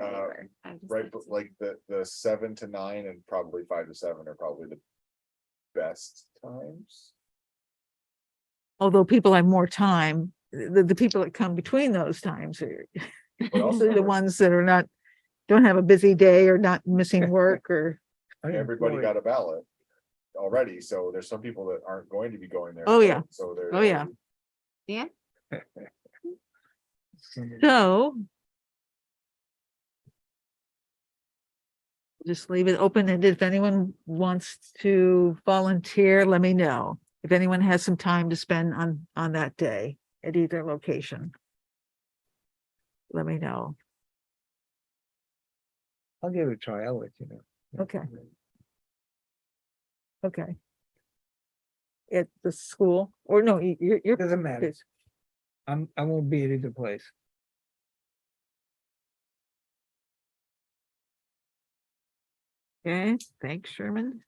uh, right, but like the, the seven to nine and probably five to seven are probably the best times. Although people have more time, the, the people that come between those times are But also, usually the ones that are not, don't have a busy day or not missing work or, everybody got a ballot already, so there's some people that aren't going to be going there. to Oh, yeah. vote, So they're. Oh, yeah. Somebody- so. Just leave it open and if anyone wants to volunteer, let me know. If anyone has some time to spend on, on that day at either location. Let me know. I'll give it a try, I'll let you know. Okay. Okay. At the school or no, y- you're, you're, Doesn't matter, it's- I'm, I won't be at either place. okay, thanks Sherman.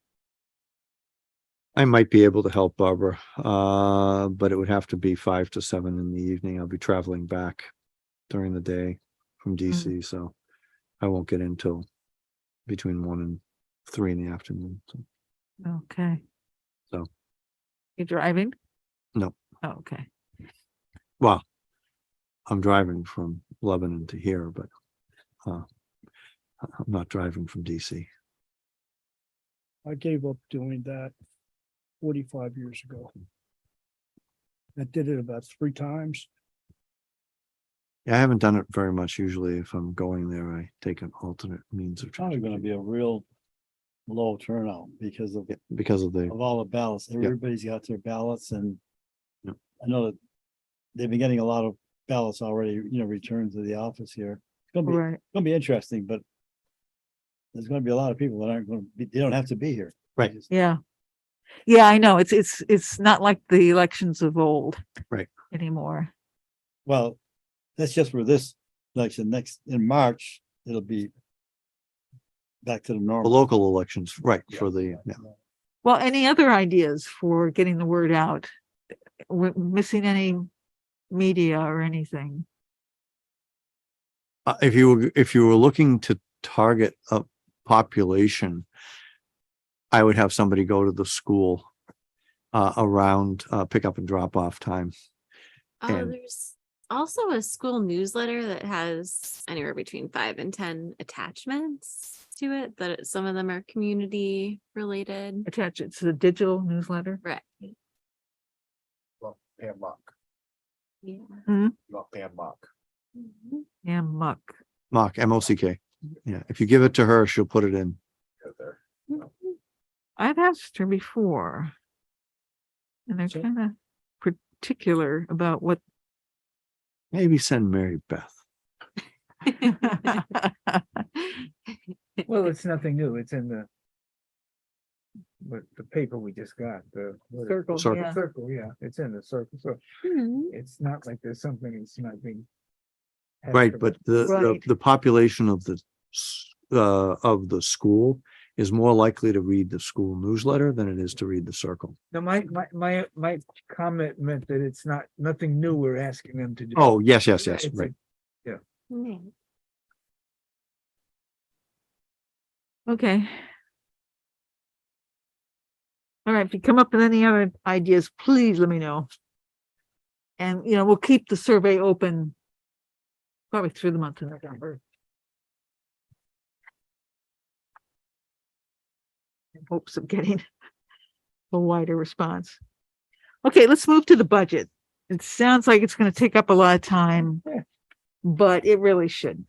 I might be able to help Barbara, uh, but it would have to be five to seven in the evening. I'll be traveling back during the day from DC, so I won't get in till between one and three in the afternoon. so. Okay. So. You driving? No. Oh, Okay, Well, I'm driving from Lebanon to here, but uh, I- I'm not driving from DC. I gave up doing that forty-five years ago. I did it about three times. Yeah, I haven't done it very much. Usually if I'm going there, I take an alternate means of probably gonna transportation be a real low turnout because of, Yeah, because of the, of all the ballots. Everybody's got their ballots and Yep. I know that they've been getting a lot of ballots already, you know, returned to the office here. It's gonna be, it's right, gonna be interesting, but there's gonna be a lot of people that aren't gonna be, they don't have to be here. They Right. just- yeah. Yeah, I know, it's, it's, it's not like the elections of old. Right. Anymore, Well, that's just for this election. Next, in March, it'll be back to the the normal. local elections, right, Yeah, for the, yeah. well, any other ideas for getting the word out? We're missing any media or anything, Uh, if you were, if you were looking to target a population, I would have somebody go to the school uh, around uh, pickup and drop off time. Oh, and- there's also a school newsletter that has anywhere between five and ten attachments to it, that it- some of them are community related. attach it to the digital newsletter, Right, Well, Pam Mock, yeah. not Pam Mock. Mhm. and muck. Mock, M O C K. Yeah, if you give it to her, she'll put it in. out there. Mhm. I've asked her before. And they're So- kind of particular about what. Maybe send Mary Beth. Well, it's nothing new, it's in the what the paper we just got, the. what is it? Circle, Circle. yeah. Circle, yeah, it's in the circle, so Mhm. it's not like there's something that's not being. hasn't Right, been- but the, the, Right. the population of the, s- uh, of the school is more likely to read the school newsletter than it is to read the circle. No, my, my, my, my comment meant that it's not, nothing new we're asking them to do. Oh, yes, yes, yes, It's a- right. Yeah. Okay. All right, if you come up with any other ideas, please let me know. And, you know, we'll keep the survey open probably through the month of November. In hopes of getting a wider response. Okay, let's move to the budget. It sounds like it's gonna take up a lot of time, Yeah. but it really shouldn't.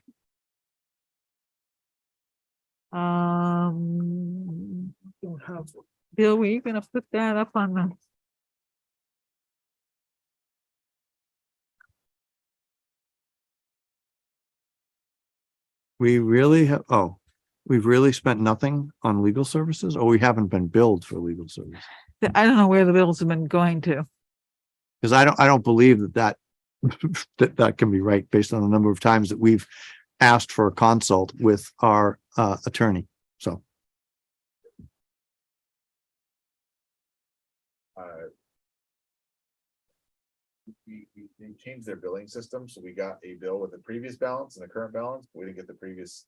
Um, Don't have Bill, were you gonna put that up on the? We really have, oh, we've really spent nothing on legal services or we haven't been billed for legal services? the- I don't know where the bills have been going to. Because I don't, I don't believe that that, that that can be right based on the number of times that we've asked for a consult with our uh, attorney. So uh, We, we, they changed their billing system, so we got a bill with the previous balance and the current balance, but we didn't get the previous